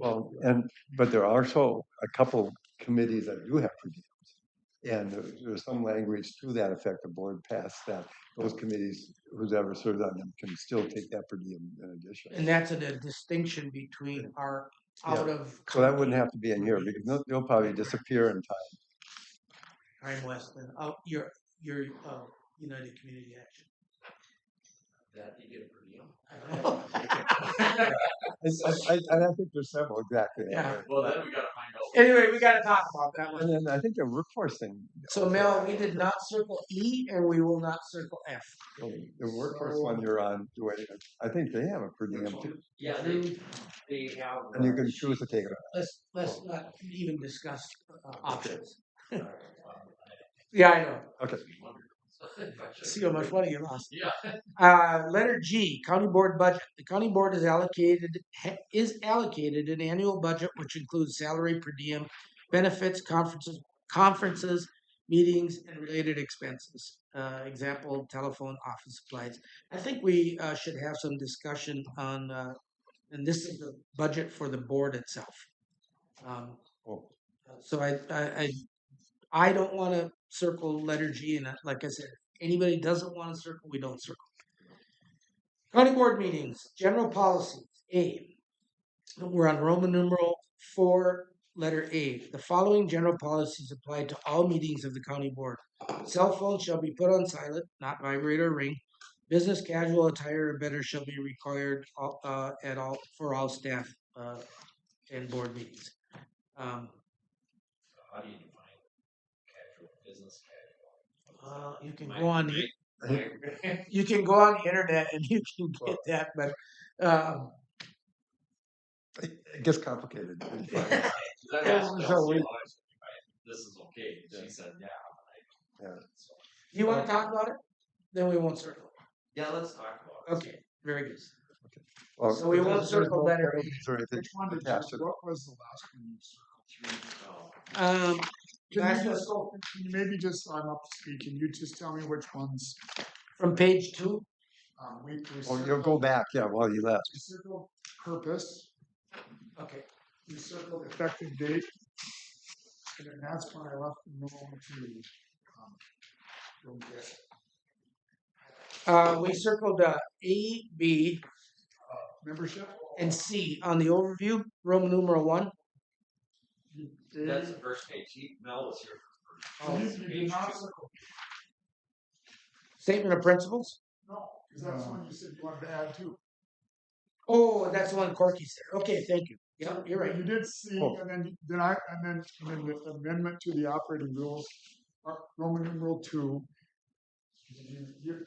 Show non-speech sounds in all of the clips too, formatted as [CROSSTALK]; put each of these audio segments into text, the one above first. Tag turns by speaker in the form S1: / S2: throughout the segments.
S1: Well, and, but there are also a couple committees that do have reviews. And there- there's some language to that effect, the board passed that, those committees, who's ever served on them can still take that per diem in
S2: And
S1: addition.
S2: that's a di- distinction between our out of.
S1: So that wouldn't have to be in here, because they'll, they'll probably disappear in time.
S2: Ryan Weston, out, your, your, uh, United Community Action.
S3: That you get a per diem.
S1: I, I, I- and I think there's several, exactly.
S2: Yeah.
S3: Well, then we gotta find
S2: [LAUGHS]
S3: out.
S2: Anyway, we gotta talk about that one. [LAUGHS]
S1: And then I think the workforce thing.
S2: So Mel, we did not circle E and we will not circle F.
S1: The workforce one you're on, Dwayne, I think they have a per diem too,
S3: Yeah, they, they have.
S1: and you can choose to take it. off.
S2: Let's, let's not even discuss uh, options. [LAUGHS]
S3: Yeah,
S2: Yeah, I know.
S1: Okay.
S3: [LAUGHS]
S2: See how much money you lost.
S3: Yeah.
S2: Uh, letter G, county board budget. The county board is allocated, ha- is allocated an annual budget which includes salary per diem, benefits, conferences, conferences, meetings, and related expenses. Uh, example, telephone, office supplies. I think we, uh, should have some discussion on, uh, and this is the budget for the board itself. Um,
S1: Oh, [LAUGHS]
S2: so I, I, I, I don't want to circle letter G, and I- like I said, anybody doesn't want to circle, we don't circle. County board meetings, general policies, A. We're on Roman numeral four, letter A. The following general policies apply to all meetings of the county board. Cell phones shall be put on silent, not vibrate or ring. Business casual attire or better shall be required all- uh, at all, for all staff uh, and board meetings. Um,
S3: How do you define casual, business casual?
S2: Uh, you can go on
S3: [LAUGHS]
S2: the
S3: Might-
S2: you can go on the internet and you can [LAUGHS] get that, but um,
S1: It it gets complicated.
S3: That
S2: Yeah,
S3: was
S1: so we-
S3: Chelsea Lawrence, right? This is okay,
S1: Yeah.
S3: she said, yeah. and I-
S1: Yeah.
S3: so-
S2: you want to talk about it? Then we won't circle.
S3: Yeah, let's talk about it.
S2: Okay, very good.
S1: Well,
S2: So we won't
S1: there's- there's
S2: circle
S1: no
S2: letter
S1: penalties Or anything
S4: Which one did you,
S1: attached to that.
S4: what was the last one you circled?
S3: Oh,
S2: Um,
S4: Can
S2: Last
S4: you
S2: one.
S4: just, can you maybe just, I'm up to speed, can you just tell me which ones,
S2: from page two,
S4: um, we, we
S1: Oh, you'll go
S4: circled?
S1: back, yeah, while you left.
S4: We circled purpose,
S2: okay,
S4: we circled effective date. And then that's when I left the room to, um, go get,
S2: uh, we circled uh, A, B,
S4: uh, membership.
S2: and C on the overview, Roman numeral one.
S3: That's the first page, He- Mel was here. for
S4: Oh,
S3: the
S4: you
S3: first
S4: you
S3: page.
S4: did not circle,
S2: Statement of principles.
S4: no, cause that's one you said you wanted to add too.
S2: Oh, that's the one Corky said. Okay, thank you. Yeah, you're right.
S4: You did see,
S1: Oh.
S4: and then, then I, and then, and then the amendment to the operating rules, uh, Roman numeral two. You- you-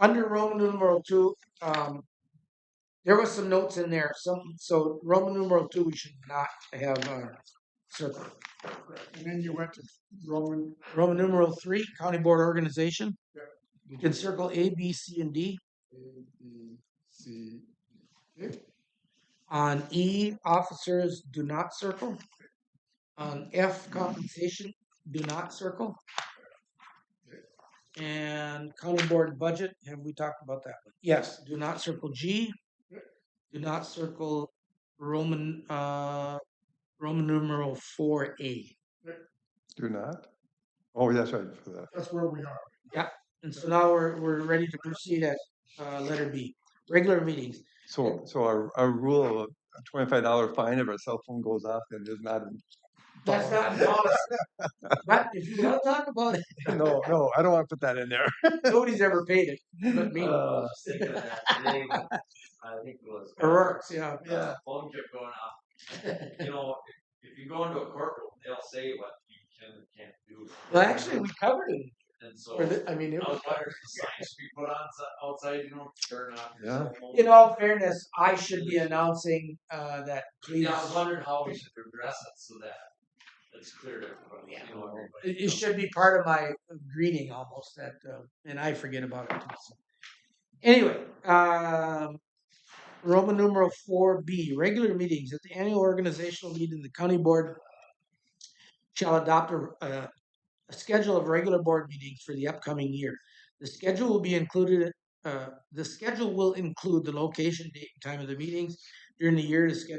S2: under Roman numeral two, um, there was some notes in there. Some so Roman numeral two, we should not have uh, circle.
S4: And then you went to Roman,
S2: Roman numeral three, county board organization.
S4: Yeah.
S2: You can circle A, B, C, and D.
S4: A, B, C. okay?
S2: On E, officers do not circle. On F, compensation do not circle. And county board budget, have we talked about that one? Yes, do not circle G. Do not circle Roman, uh, Roman numeral four A.
S1: Do not? Oh, that's right, for that.
S4: That's where we are.
S2: And so now we're, we're ready to proceed at, uh, letter B, regular meetings.
S1: So, so our, our rule of a twenty-five dollar fine if our cell phone goes off and is not, in-
S2: That's not
S4: [LAUGHS]
S2: policy. But if you want to talk about it,
S1: [LAUGHS] no, no, I don't want to put that in there.
S2: nobody's ever paid it, [LAUGHS] but me.
S3: Oh, I was thinking of that
S2: [LAUGHS]
S3: today, but I think it was.
S2: O'Rourke's, yeah.
S1: Yeah.
S3: Phone kept going off. You know, if if you go into a courtroom, they'll say what you can and can't do.
S2: Well, actually, we covered it.
S3: And so, I
S2: Or
S3: was
S2: the- I mean, it was.
S3: wondering, if signs should be put on si- outside, you know, turn off your
S1: Yeah.
S3: cell phone.
S2: In all fairness, I should be announcing uh, that please.
S3: Yeah, I was wondering how we should address it so that it's clear to everybody, you know, everybody.
S2: It it should be part of my greeting almost that, uh, and I forget about it. too, so. Anyway, um, Roman numeral four B, regular meetings at the annual organizational meeting, the county board shall adopt a, a, a schedule of regular board meetings for the upcoming year. The schedule will be included uh, the schedule will include the location, date, and time of the meetings. During the year, the schedule